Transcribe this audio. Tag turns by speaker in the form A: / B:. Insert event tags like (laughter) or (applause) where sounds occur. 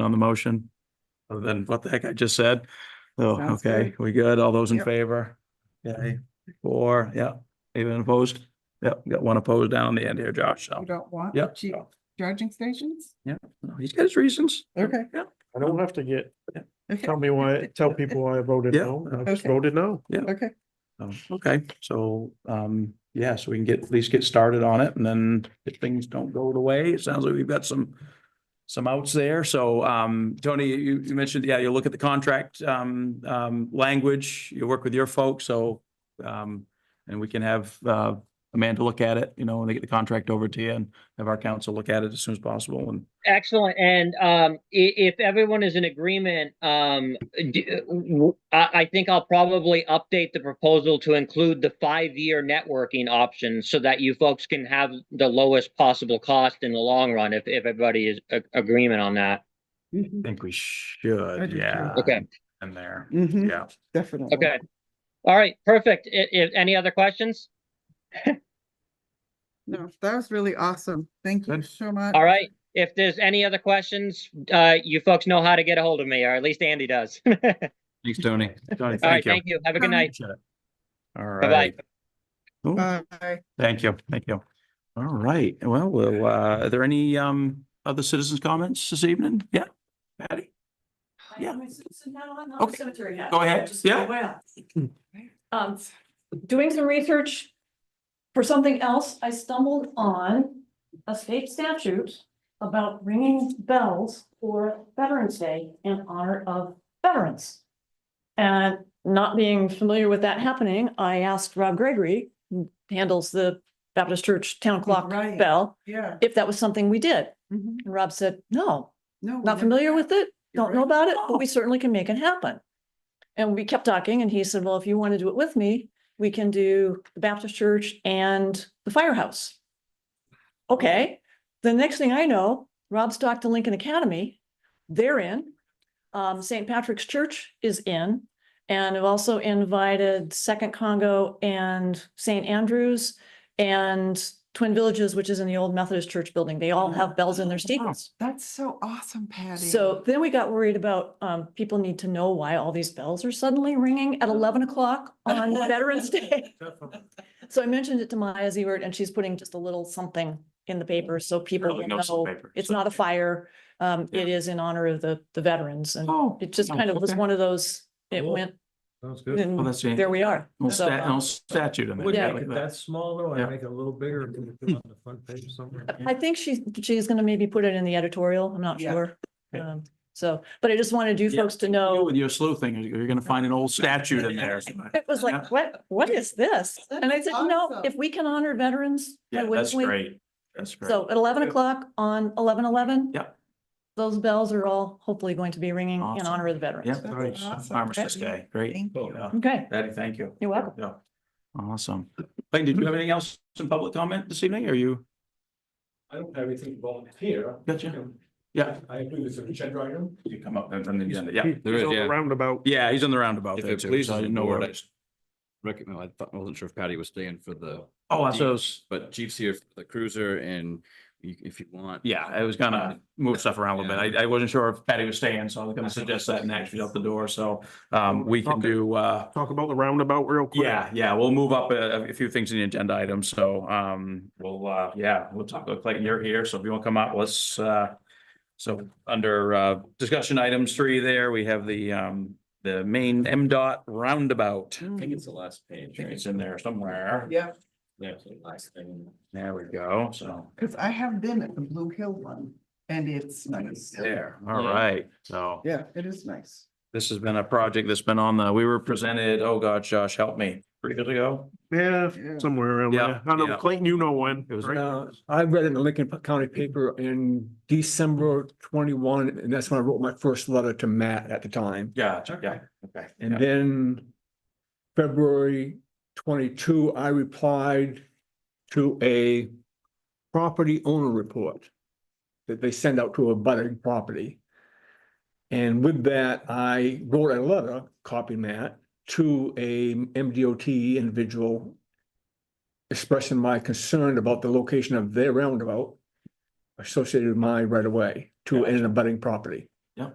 A: on the motion? Other than what the heck I just said? Oh,
B: Sounds
A: okay, we good? All those in
B: Yep.
A: favor? Yay, four, yeah, even opposed? Yep, got one opposed down on the end here, Josh, so.
B: You don't want
A: Yep,
B: cheap
A: so,
B: charging stations?
A: yeah, no, he's got his reasons.
B: Okay.
C: I don't have to get,
B: Okay.
C: tell me why, tell people why I voted
A: Yeah.
C: no. I just
B: Okay.
C: voted no.
B: Okay,
A: So, Oh, Okay, so, um, yeah, so we can get, at least get started on it and then if things don't go the way, it sounds like we've got some. Some outs there. So, um, Tony, you, you mentioned, yeah, you look at the contract, um, um, language, you work with your folks, so. Um, and we can have, uh, Amanda look at it, you know, when they get the contract over to you and have our council look at it as soon as possible and.
D: Excellent. And um, i- if everyone is in agreement, um, d- w- I, I think I'll probably update the proposal to include the five-year networking option so that you folks can have the lowest possible cost in the long run, if, if everybody is a- agreement on that.
B: Mm-hmm.
A: I think we
B: I
A: should,
B: do too.
A: yeah.
D: Okay.
A: In there,
B: hmm
A: yeah.
B: definitely.
D: Okay. All right, perfect. I- i- any other questions?
B: No, that was really awesome. Thank you
A: Good.
B: so much.
D: All right. If there's any other questions, uh, you folks know how to get a hold of me, or at least Andy does. (laughs) All
A: Thanks, Tony. Tony,
D: right,
A: thank you.
D: thank you. Have a good night.
A: Appreciate it. All
D: Bye-bye.
A: right. Cool.
B: Bye.
A: Thank you, thank you. All right, well, well, uh, are there any, um, other citizens' comments this evening? Yeah, Patty? Yeah.
E: I'm a citizen now, I'm not a
A: Okay.
E: cemetery now.
A: Go ahead.
E: Just
A: Yeah. (clears throat)
E: aware. Um, doing some research for something else, I stumbled on a state statute about ringing bells for Veterans Day in honor of veterans. And not being familiar with that happening, I asked Rob Gregory, who handles the Baptist Church Town Clock
B: Right.
E: Bell,
B: Yeah.
E: if that was something we did.
B: Mhm.
E: And Rob said, no,
B: No. we
E: not
B: never-
E: familiar with it,
B: You're
E: don't know
B: right.
E: about it, but we certainly can make it happen. And we kept talking and he said, well, if you want to do it with me, we can do the Baptist church and the firehouse. Okay, the next thing I know, Rob's talked to Lincoln Academy, they're in. Um, St. Patrick's Church is in, and I've also invited Second Congo and St. Andrews and Twin Villages, which is in the old Methodist Church building. They all have bells in their steeples.
B: That's so awesome, Patty.
E: So then we got worried about, um, people need to know why all these bells are suddenly ringing at eleven o'clock on Veterans Day. So I mentioned it to Maya Zewert and she's putting just a little something in the paper so people
A: Really
E: will
A: notice the
E: know
A: paper,
E: it's
A: so-
E: not a fire. Um, it is in honor of the, the veterans and
A: Oh.
E: it just kind of was
A: okay.
E: one of those, it
F: Cool.
E: went,
F: Sounds good.
A: Well,
E: and
A: Oh, that's the
E: there we are.
A: little
E: So,
A: stat-
E: um,
A: little statute in
F: Would
A: there.
E: Yeah.
F: make it that small though,
A: Yeah.
F: and make it a little bigger, and put it on the front page
A: (laughs)
F: somewhere.
E: I think she, she's gonna maybe put it in the editorial. I'm not
B: Yeah.
E: sure.
A: Okay.
E: Um, so, but I just wanted you
A: Yeah.
E: folks to know.
A: With your sleuthing, you're you're gonna find an old statute in
E: (laughs)
A: there.
E: It was
A: Yeah.
E: like, what, what is this?
B: That
E: And I
B: is
E: said, no,
B: awesome.
E: if we can honor veterans. why
A: Yeah,
E: wouldn't
A: that's
E: we?"
A: great. That's great.
E: So at eleven o'clock on eleven eleven.
A: Yep.
E: Those bells are all hopefully going to be ringing in
A: Awesome.
E: honor of the veterans.
A: Yep.
B: That's
E: uh,
B: awesome,
A: Armistice
B: Patty.
A: Day, great.
B: Thank you.
A: Yeah.
E: Okay,
A: Patty, thank you.
E: You're welcome.
A: Yeah. Awesome. Clayton, did you have anything else in public comment this evening? Are you,
F: I don't have anything volunteer.
A: gotcha? Yeah,
F: I agree with the agenda item.
A: you come up and then the agenda, yeah.
G: There
C: He's
G: is,
C: on the
G: yeah.
C: Roundabout.
A: Yeah, he's in the roundabout
G: If
A: there
G: it
A: too, so I
G: pleases the
A: didn't know
G: board,
A: where.
G: I recommend, I thought, I wasn't sure if Patty was staying for the,
A: Oh, I was,
G: but Jeep's here for the cruiser and you- if you want.
A: yeah, I was gonna move stuff around a little bit. I, I wasn't sure if Patty was staying, so I was gonna suggest that and actually out the door, so, um, we can
C: Okay.
A: do, uh,
C: Talk about the roundabout real quick.
A: Yeah, yeah, we'll move up a, a few things in the agenda items, so, um, we'll, uh, yeah, we'll talk, look like you're here, so if you want to come up, let's, uh, so under, uh, discussion items three there, we have the, um, the main M dot roundabout. I
G: I think it's the last page,
A: think
G: right?
A: it's in there somewhere.
B: Yeah,
G: That's the last thing.
A: There we go, so,
B: because I have been at the Blue Hill one and it's nice.
A: there, all right, so.
B: Yeah, it is nice.
A: This has been a project that's been on the, we were presented, oh God, Josh, help me, three years ago?
C: Yeah,
B: Yeah.
C: somewhere around
A: Yeah,
C: there. I don't
A: yeah.
C: know, Clayton, you know when.
A: It was-
C: right?
F: Uh, I read in the Lincoln County paper in December twenty-one, and that's when I wrote my first letter to Matt at the time.
A: Yeah, yeah, okay.
F: And
A: yeah.
F: then February twenty-two, I replied to a property owner report that they send out to a budding property. And with that, I wrote a letter, copying that, to a MDOT individual expressing my concern about the location of their roundabout associated with my right-of-way to an abutting property.
A: Yeah.